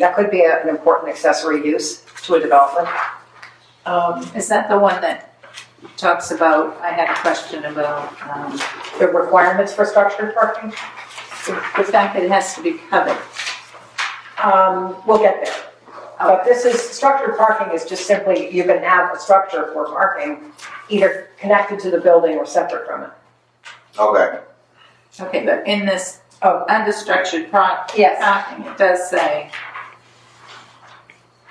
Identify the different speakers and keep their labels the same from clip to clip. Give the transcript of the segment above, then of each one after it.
Speaker 1: That could be a- an important accessory use to a development.
Speaker 2: Um,
Speaker 3: Is that the one that talks about, I had a question about, um,
Speaker 1: The requirements for structured parking,
Speaker 3: the fact that it has to be covered?
Speaker 1: um, we'll get there. Uh, But this is, structured parking is just simply, you can have a structure for parking, either connected to the building or separate from it.
Speaker 4: Okay,
Speaker 3: Okay, but in this
Speaker 1: Oh.
Speaker 3: understructured pro-
Speaker 1: Yes.
Speaker 3: parking, it does say,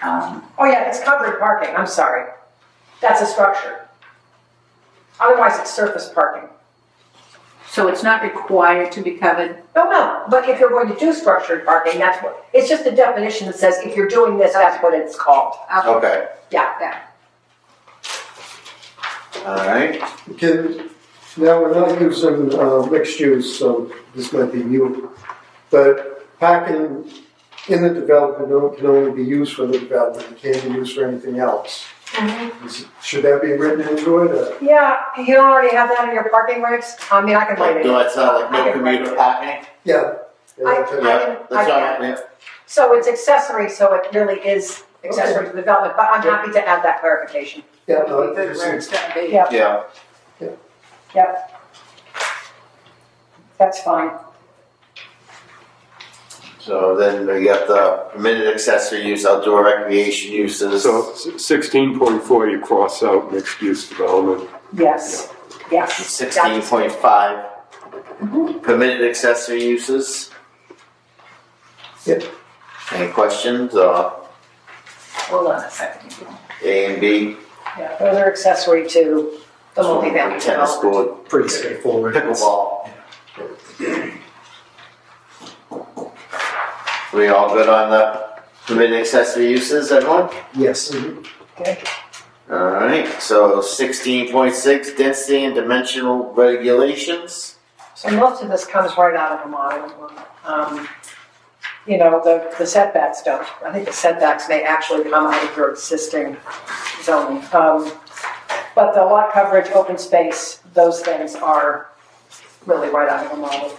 Speaker 3: um,
Speaker 1: Oh, yeah, it's covered parking, I'm sorry. That's a structure. Otherwise, it's surface parking.
Speaker 3: so it's not required to be covered?
Speaker 1: No, Oh, no, but if you're going to do structured parking, that's what, it's just a definition that says if you're doing this, that's what it's called.
Speaker 3: I'll-
Speaker 4: okay, alright.
Speaker 5: Can, now, we're not using uh, mixed use, so this might be new, but parking in the development o- can only be used for the development, it can't be used for anything else. Is- Should that be written into it, or-
Speaker 1: Yeah, you don't already have that in your parking regs? I mean, I can write
Speaker 4: Like,
Speaker 1: it.
Speaker 4: do I sound like
Speaker 1: I
Speaker 4: no
Speaker 1: can write
Speaker 4: commuter
Speaker 1: it.
Speaker 4: parking?
Speaker 5: yeah? yeah, okay.
Speaker 4: Yeah,
Speaker 1: I
Speaker 4: that's
Speaker 1: can-
Speaker 4: all right,
Speaker 1: So it's accessory, so it really is accessory to development, but I'm happy to add that clarification.
Speaker 5: Yeah,
Speaker 3: It'll
Speaker 5: no,
Speaker 3: be good where it's
Speaker 5: it's-
Speaker 3: gonna be.
Speaker 1: Yeah.
Speaker 4: yeah,
Speaker 1: That's fine.
Speaker 4: so then we got the permitted accessory use, outdoor recreation uses.
Speaker 6: So sixteen point four, you cross out mixed-use development.
Speaker 1: Yes, yes.
Speaker 4: Sixteen point five. Permitted accessory uses.
Speaker 5: Yep.
Speaker 4: Any questions, uh,
Speaker 3: Hold on a second.
Speaker 4: A and B,
Speaker 1: Yeah, Those are accessory to the multifamily
Speaker 4: tennis
Speaker 1: development.
Speaker 4: court,
Speaker 7: pretty straightforward.
Speaker 4: pickleball. We all good on the permitted accessory uses, everyone?
Speaker 7: Yes.
Speaker 4: Alright, so sixteen point six, density and dimensional regulations.
Speaker 1: So most of this comes right out of the model. Um, You know, the the setbacks don't. I think the setbacks may actually come out of your existing zoning. Um, But the lot coverage, open space, those things are really right out of the model.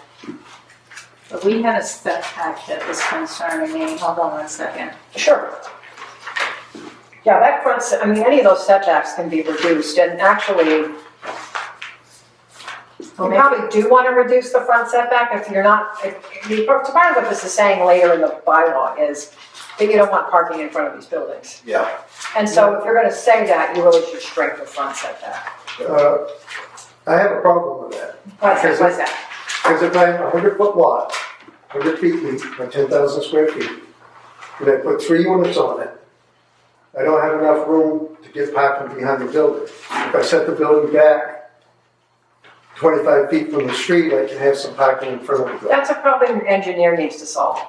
Speaker 3: But we had a setback that was concerning me, hold on one second.
Speaker 1: Sure. Yeah, that front, se- I mean, any of those setbacks can be reduced, and actually, You probably do want to reduce the front setback if you're not, if, you- part of what this is saying later in the bylaw is that you don't want parking in front of these buildings.
Speaker 4: Yeah.
Speaker 1: And so if you're gonna say that, you really should shrink the front setback.
Speaker 5: uh, I have a problem with that,
Speaker 1: What's that- what's that?
Speaker 5: because if I have a hundred foot lot, hundred feet deep, by ten thousand square feet, and I put three units on it, I don't have enough room to get parking behind the building. If I set the building back twenty-five feet from the street, I can have some parking in front of the building.
Speaker 1: That's a problem your engineer needs to solve.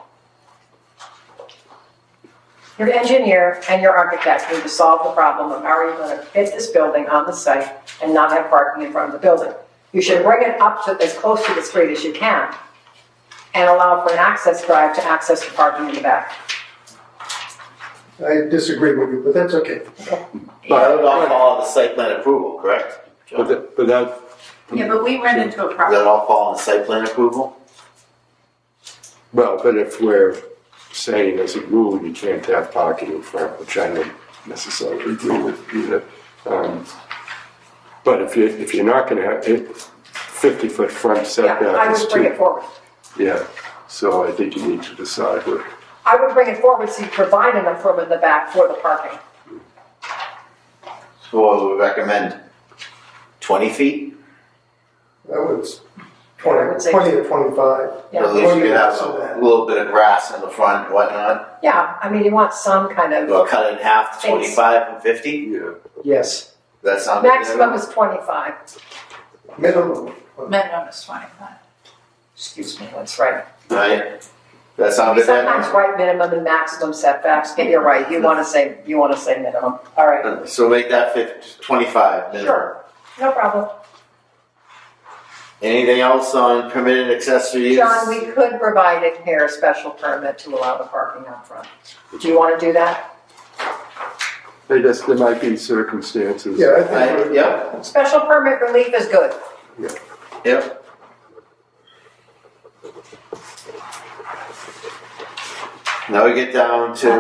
Speaker 1: Your engineer and your architect need to solve the problem of how are you gonna fit this building on the site and not have parking in front of the building. You should bring it up to as close to the street as you can and allow for an access drive to access the parking in the back.
Speaker 5: I disagree with you, but that's okay.
Speaker 4: That would all fall under site plan approval, correct?
Speaker 6: But
Speaker 4: John?
Speaker 6: that, but that,
Speaker 3: Yeah, but we ran into a
Speaker 4: Does that
Speaker 3: problem.
Speaker 4: all fall under site plan approval?
Speaker 6: well, but if we're saying as a rule, you can't have parking in front, which I don't necessarily agree with either. Um, But if you, if you're not gonna have, it, fifty-foot front
Speaker 1: Yeah, I
Speaker 6: setback is
Speaker 1: would bring it
Speaker 6: too,
Speaker 1: forward.
Speaker 6: yeah. So I think you need to decide what,
Speaker 1: I would bring it forward so you provide enough room in the back for the parking.
Speaker 4: So what would we recommend? Twenty feet?
Speaker 5: That was
Speaker 1: I would say-
Speaker 5: twenty, twenty or twenty-five.
Speaker 1: Yeah.
Speaker 4: At least you could have
Speaker 5: Twenty,
Speaker 4: a
Speaker 5: so
Speaker 4: little bit of grass in the front and whatnot.
Speaker 1: Yeah, I mean, you want some kind
Speaker 4: Well,
Speaker 1: of,
Speaker 4: cut it in half to
Speaker 1: Thanks.
Speaker 4: twenty-five and fifty?
Speaker 6: yeah.
Speaker 7: Yes.
Speaker 4: That sound good?
Speaker 1: maximum is twenty-five.
Speaker 5: that. Minimum.
Speaker 3: Minimum is twenty-five.
Speaker 1: Excuse me, that's right.
Speaker 4: Right? That sound
Speaker 1: You
Speaker 4: good?
Speaker 1: sometimes
Speaker 4: then?
Speaker 1: write minimum and maximum setbacks, but you're right, you wanna say, you wanna say minimum, all right.
Speaker 4: So make that fif- twenty-five minimum.
Speaker 1: Sure. No problem.
Speaker 4: Anything else on permitted accessory use?
Speaker 1: John, we could provide in here a special permit to allow the parking out front. Do you wanna do that?
Speaker 6: I guess there might be circumstances.
Speaker 5: Yeah, I think.
Speaker 4: Right,
Speaker 5: we're-
Speaker 4: yep,
Speaker 1: Special permit relief is good.
Speaker 4: yep. Now we get down to